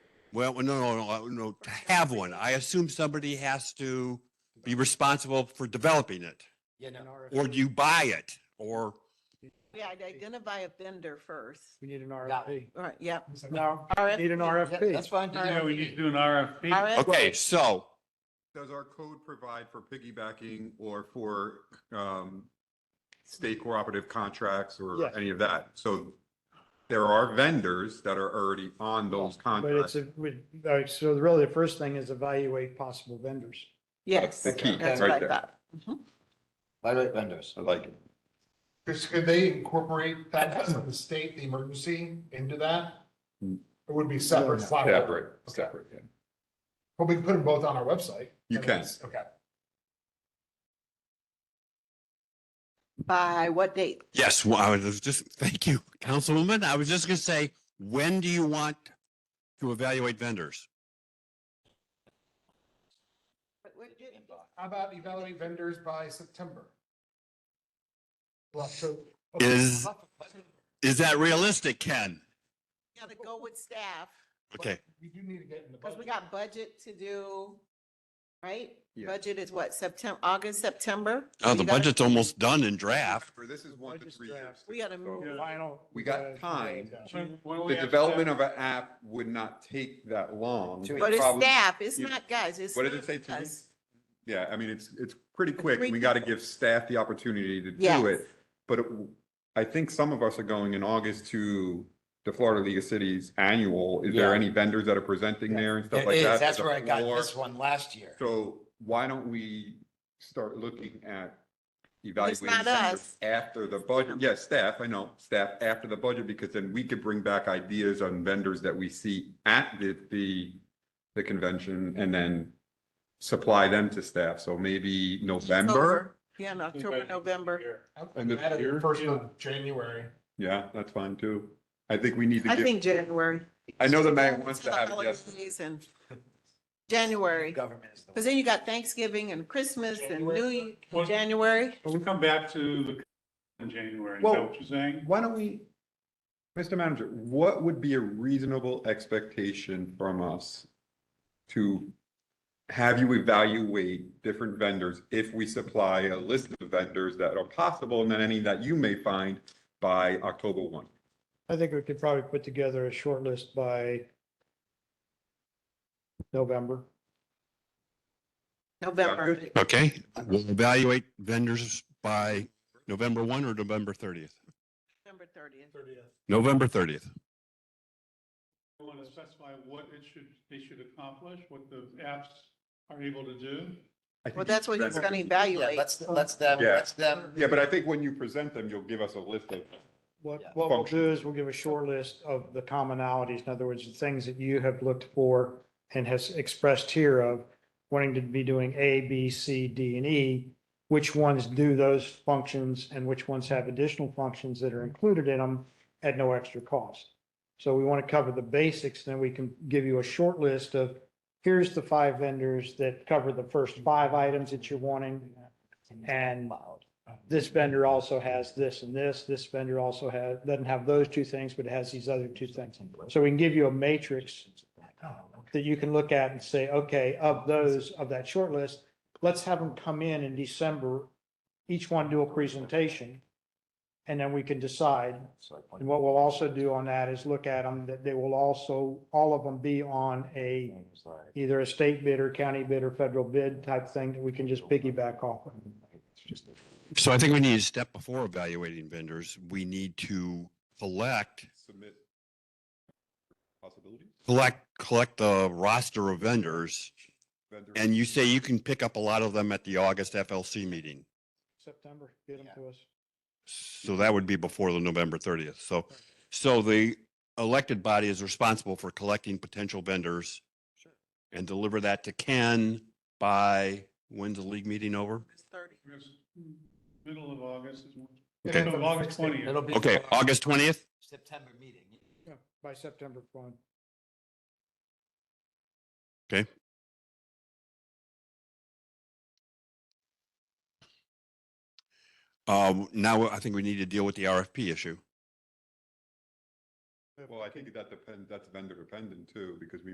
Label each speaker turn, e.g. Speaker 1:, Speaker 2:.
Speaker 1: Well, no, no, no, no, to have one. I assume somebody has to be responsible for developing it,
Speaker 2: Yeah, no.
Speaker 1: or you buy it, or,
Speaker 3: Yeah, I'd identify a vendor first.
Speaker 4: We need an RFP.
Speaker 3: Right, yep.
Speaker 4: No,
Speaker 3: RFP.
Speaker 4: need an
Speaker 2: Yeah, That's
Speaker 4: RFP.
Speaker 2: fine.
Speaker 5: Yeah, we need to do an RFP.
Speaker 3: RFP.
Speaker 1: okay, so,
Speaker 6: Does our code provide for piggybacking or for um, state cooperative contracts or
Speaker 4: Yes.
Speaker 6: any of that? So there are vendors that are already on those
Speaker 4: But it's,
Speaker 6: contracts.
Speaker 4: a we- all right, so really the first thing is evaluate possible vendors.
Speaker 3: Yes,
Speaker 6: the key,
Speaker 3: that's
Speaker 6: right
Speaker 3: what I
Speaker 6: there.
Speaker 3: thought.
Speaker 2: Evaluate vendors.
Speaker 6: I like it.
Speaker 7: Chris, could they incorporate that, the state, the emergency into that? It would be separate.
Speaker 6: Separate, separate. yeah.
Speaker 7: But we can put them both on our website.
Speaker 6: You
Speaker 7: And
Speaker 6: can.
Speaker 7: that's- Okay.
Speaker 3: By what date?
Speaker 1: yes, well, I was just, thank you, Councilwoman. I was just gonna say, when do you want to evaluate vendors?
Speaker 7: How about evaluate vendors by September? Well, so.
Speaker 1: Is- Is that realistic, Ken?
Speaker 3: Got to go with staff,
Speaker 1: Okay,
Speaker 7: We do need to get in the
Speaker 3: because we
Speaker 7: budget.
Speaker 3: got budget to do, right?
Speaker 6: Yeah.
Speaker 3: Budget is what, September, August, September?
Speaker 1: oh,
Speaker 3: We
Speaker 1: the
Speaker 3: gotta-
Speaker 1: budget's almost done in draft.
Speaker 6: Remember, This is one to three years.
Speaker 3: We gotta move.
Speaker 5: Yeah.
Speaker 4: Final.
Speaker 6: We got time.
Speaker 5: When- uh, when we
Speaker 6: The
Speaker 5: have
Speaker 6: development
Speaker 5: that-
Speaker 6: of an app would not take that long.
Speaker 2: Two
Speaker 3: But it's
Speaker 6: Probably-
Speaker 3: staff, it's
Speaker 6: you-
Speaker 3: not guys, it's.
Speaker 6: What did it
Speaker 3: not
Speaker 6: say, two
Speaker 3: us.
Speaker 6: weeks? Yeah, I mean, it's, it's pretty quick.
Speaker 3: Three
Speaker 6: We got to give staff the opportunity to do
Speaker 3: Yes.
Speaker 6: it. But it- I think some of us are going in August to the Florida League of Cities annual. Is there
Speaker 2: Yeah.
Speaker 6: any vendors that are presenting there and stuff
Speaker 2: There
Speaker 6: like
Speaker 2: is,
Speaker 6: that?
Speaker 2: that's
Speaker 6: There's a
Speaker 2: where I got
Speaker 6: floor.
Speaker 2: this one last year.
Speaker 6: So why don't we start looking at
Speaker 3: It's
Speaker 6: evaluating
Speaker 3: not
Speaker 6: vendors
Speaker 3: us.
Speaker 6: after the budget? Yes, staff, I know, staff after the budget, because then we could bring back ideas on vendors that we see at the, the, the convention and then supply them to staff. So maybe November?
Speaker 3: October. Yeah, in October, November.
Speaker 6: And the
Speaker 7: Add it
Speaker 6: year?
Speaker 7: First of January.
Speaker 6: Yeah, that's fine too. I think we need to
Speaker 3: I
Speaker 6: get,
Speaker 3: think January.
Speaker 6: I know the mayor
Speaker 3: Well,
Speaker 6: wants
Speaker 3: it's
Speaker 6: to
Speaker 3: the
Speaker 6: have it,
Speaker 3: holiday
Speaker 6: yes.
Speaker 3: season. January,
Speaker 2: Government is the.
Speaker 3: because then you got Thanksgiving and Christmas and New, Year-
Speaker 5: Well-
Speaker 3: January.
Speaker 5: We'll come back to the, in January, is
Speaker 6: Well-
Speaker 5: that what you're saying?
Speaker 6: Why don't we, Mr. Manager, what would be a reasonable expectation from us to have you evaluate different vendors if we supply a list of vendors that are possible and then any that you may find by October one?
Speaker 4: I think we could probably put together a short list by November.
Speaker 3: November.
Speaker 1: Okay, we'll evaluate vendors by November one or November thirtieth?
Speaker 3: November thirtieth.
Speaker 1: November thirtieth.
Speaker 5: You want to specify what it should, they should accomplish, what the apps are able to do?
Speaker 6: I think
Speaker 3: Well, that's what he's gonna evaluate.
Speaker 2: Let's, let's them,
Speaker 6: Yeah.
Speaker 2: let's them.
Speaker 6: Yeah, but I think when you present them, you'll give us a list of,
Speaker 4: What,
Speaker 2: Yeah.
Speaker 4: what we'll do is we'll give a short list of the commonalities, in other words, the things that you have looked for and has expressed here of wanting to be doing A, B, C, D, and E. Which ones do those functions and which ones have additional functions that are included in them at no extra cost? So we want to cover the basics, then we can give you a short list of, here's the five vendors that cover the first five items that you're wanting. And this vendor also has this and this, this vendor also has, doesn't have those two things, but it has these other two things. So we can give you a matrix that you can look at and say, okay, of those, of that short list, let's have them come in in December, each one do a presentation. And then we can decide. And what we'll also do on that is look at them, that they will also, all of them be on a, either a state bid or county bid or federal bid type thing that we can just piggyback off. of.
Speaker 1: So I think we need a step before evaluating vendors. We need to collect,
Speaker 6: submit possibilities.
Speaker 1: collect, collect the roster of vendors.
Speaker 6: vendor-
Speaker 1: And you say you can pick up a lot of them at the August FLC meeting.
Speaker 4: September, get them to us.
Speaker 1: So that would be before the November thirtieth. So, so the elected body is responsible for collecting potential vendors and deliver that to Ken by, when's the league meeting over?
Speaker 3: Thirty.
Speaker 5: Because Middle of August is.
Speaker 1: Okay.
Speaker 5: So August twentieth.
Speaker 2: It'll be
Speaker 1: Okay, August twentieth?
Speaker 2: September meeting.
Speaker 4: Yeah, By September one.
Speaker 1: Um, now I think we need to deal with the RFP issue.
Speaker 6: Well, I think that depends, that's vendor dependent too, because we